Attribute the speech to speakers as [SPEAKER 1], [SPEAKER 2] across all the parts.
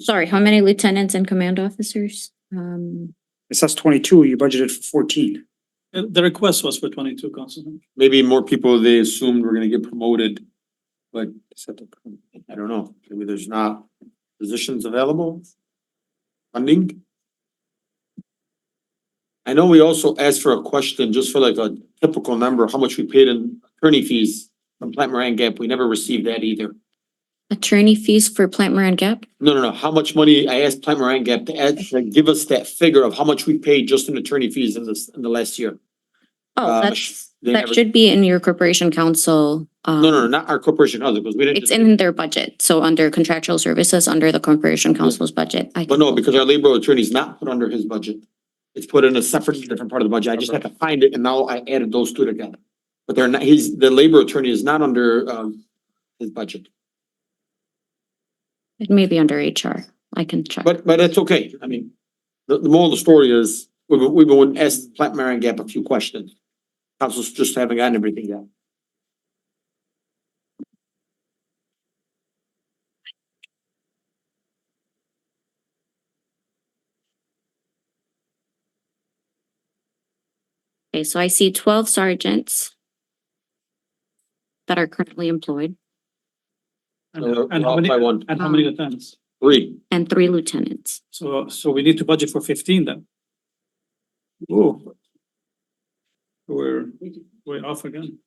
[SPEAKER 1] Sorry, how many lieutenants and command officers? Um,
[SPEAKER 2] It says twenty-two, you budgeted for fourteen.
[SPEAKER 3] Uh, The request was for twenty-two, Councilman.
[SPEAKER 4] Maybe more people, they assumed were gonna get promoted, but I don't know, maybe there's not positions available? Funding? I know we also asked for a question, just for like a typical number, how much we paid in attorney fees from Plant Moran Gap, we never received that either.
[SPEAKER 1] attorney fees for Plant Moran Gap?
[SPEAKER 4] No, no, no, how much money, I asked Plant Moran Gap to add, to give us that figure of how much we paid just in attorney fees in this, in the last year.
[SPEAKER 1] Oh,
[SPEAKER 4] Uh,
[SPEAKER 1] that's,
[SPEAKER 4] they
[SPEAKER 1] that
[SPEAKER 4] never-
[SPEAKER 1] should be in your corporation council. um,
[SPEAKER 4] No, no, no, not our corporation, other, because we didn't.
[SPEAKER 1] It's in their budget, so under contractual services, under the corporation council's budget. I-
[SPEAKER 4] But no, because our labor attorney is not put under his budget. It's put in a separate, different part of the budget. I just had to find it and now I added those two together. But they're not, he's, the labor attorney is not under, um, his budget.
[SPEAKER 1] It may be under HR. I can check.
[SPEAKER 4] But, but that's okay. I mean, the, the moral of the story is, we've, been- we've been asked Plant Marion Gap a few questions. Council's just haven't gotten everything yet.
[SPEAKER 1] Okay, so I see twelve sergeants that are currently employed
[SPEAKER 4] So,
[SPEAKER 3] And and how
[SPEAKER 4] off
[SPEAKER 3] many,
[SPEAKER 4] by one,
[SPEAKER 3] and how many lieutenants?
[SPEAKER 4] three.
[SPEAKER 1] and three lieutenants.
[SPEAKER 3] So, so we need to budget for fifteen then. Ooh. We're, we're off again.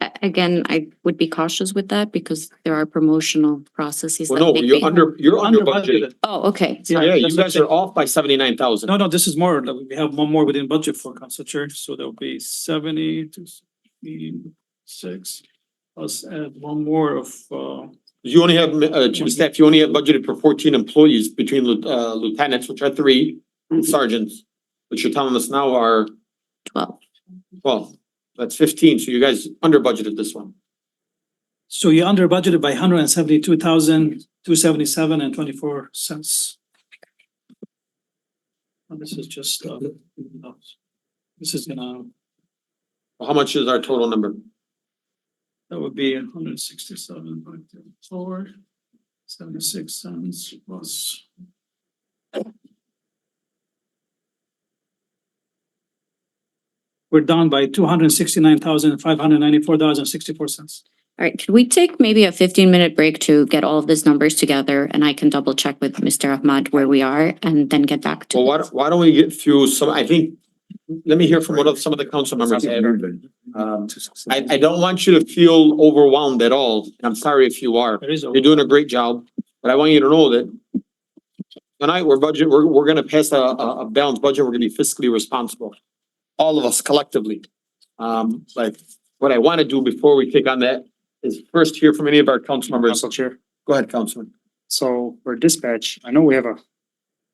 [SPEAKER 1] A- Again, I would be cautious with that because there are promotional processes.
[SPEAKER 4] Well,
[SPEAKER 1] that
[SPEAKER 4] no,
[SPEAKER 1] may
[SPEAKER 4] you're
[SPEAKER 1] be-
[SPEAKER 4] under, you're under
[SPEAKER 3] Under
[SPEAKER 4] budget.
[SPEAKER 3] budgeted.
[SPEAKER 1] Oh, okay.
[SPEAKER 3] Yeah,
[SPEAKER 4] Yeah, you
[SPEAKER 3] that's what I'm
[SPEAKER 4] guys are off by seventy-nine thousand.
[SPEAKER 3] No, no, this is more, like, we have one more within budget for Council Church, so there'll be seventy to sixty-six. Plus add one more of, uh,
[SPEAKER 4] You only have, uh, chief of staff, you only have budgeted for fourteen employees between lieu- uh, lieutenants, which are three, and sergeants, which you're telling us now are,
[SPEAKER 1] Twelve.
[SPEAKER 4] well, that's fifteen, so you guys under budgeted this one.
[SPEAKER 3] so you're under budgeted by hundred and seventy-two thousand, two seventy-seven and twenty-four cents. And this is just, uh, this is gonna,
[SPEAKER 4] How much is our total number?
[SPEAKER 3] that would be hundred and sixty-seven point four, seventy-six cents plus. We're down by two hundred and sixty-nine thousand, five hundred and ninety-four dollars and sixty-four cents.
[SPEAKER 1] All right, could we take maybe a fifteen minute break to get all of these numbers together and I can double check with Mr. Ahmad where we are and then get back to
[SPEAKER 4] Well, why,
[SPEAKER 1] this?
[SPEAKER 4] don't- why don't we get through some, I think, let me hear from what some of the council members have. Um, I, I don't want you to feel overwhelmed at all, and I'm sorry if you are.
[SPEAKER 3] There is, a-
[SPEAKER 4] You're doing a great job, but I want you to know that tonight, we're budget, we're, we're gonna pass a, a, a balanced budget. We're gonna be fiscally responsible. All of us collectively. Um, like, what I want to do before we take on that is first hear from any of our council members.
[SPEAKER 2] Council Chair,
[SPEAKER 4] Go ahead, Councilman.
[SPEAKER 2] so for dispatch, I know we have a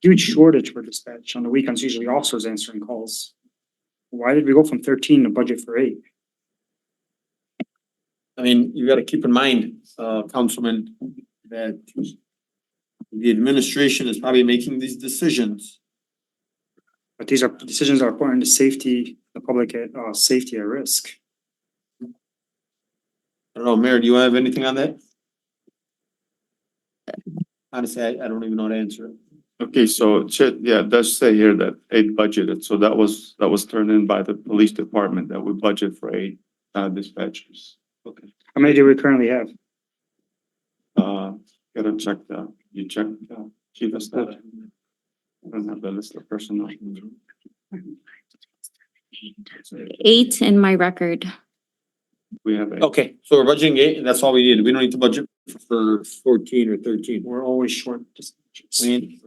[SPEAKER 2] huge shortage for dispatch. On the weekends, usually officers answering calls. Why did we go from thirteen to budget for eight?
[SPEAKER 4] I mean, you gotta keep in mind, uh, Councilman, that the administration is probably making these decisions.
[SPEAKER 2] But these are decisions that are putting the safety, the public, at, uh, safety at risk.
[SPEAKER 4] I don't know, Mayor, do you have anything on that? Honestly, I, I don't even know how to answer it.
[SPEAKER 5] Okay, so Chair, yeah, it does say here that eight budgeted, so that was, that was turned in by the police department that we budget for eight uh dispatchers.
[SPEAKER 2] How many do we currently have?
[SPEAKER 5] Uh, gotta check that, you check uh chief of staff. I don't have the list of personnel.
[SPEAKER 1] Eight in my record.
[SPEAKER 5] We have eight.
[SPEAKER 4] Okay, so we're budgeting eight, and that's all we need. We don't need to budget for fourteen or thirteen.
[SPEAKER 2] We're always short dispatches.
[SPEAKER 4] I mean,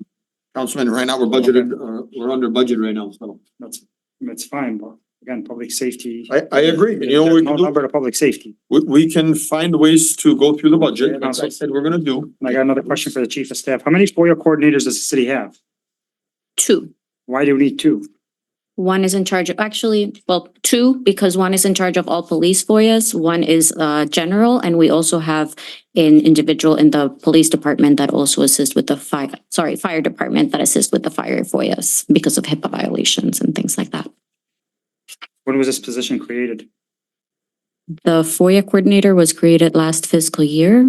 [SPEAKER 4] Councilman, right now, we're budgeted, uh, we're under budget right now, so.
[SPEAKER 2] That's, that's fine, but again, public safety.
[SPEAKER 4] I, I agree. You know, what we
[SPEAKER 2] There's no
[SPEAKER 4] can do,
[SPEAKER 2] number to public safety.
[SPEAKER 4] we, we can find ways to go through the budget, like I said, we're gonna do.
[SPEAKER 2] And I got another question for the chief of staff. How many FOIA coordinators does the city have?
[SPEAKER 1] Two.
[SPEAKER 2] Why do we need two?
[SPEAKER 1] One is in charge of, actually, well, two, because one is in charge of all police FOIAs, one is uh general, and we also have an individual in the police department that also assists with the fire, sorry, fire department that assists with the fire FOIAs because of HIPAA violations and things like that.
[SPEAKER 2] When was this position created?
[SPEAKER 1] The FOIA coordinator was created last fiscal year.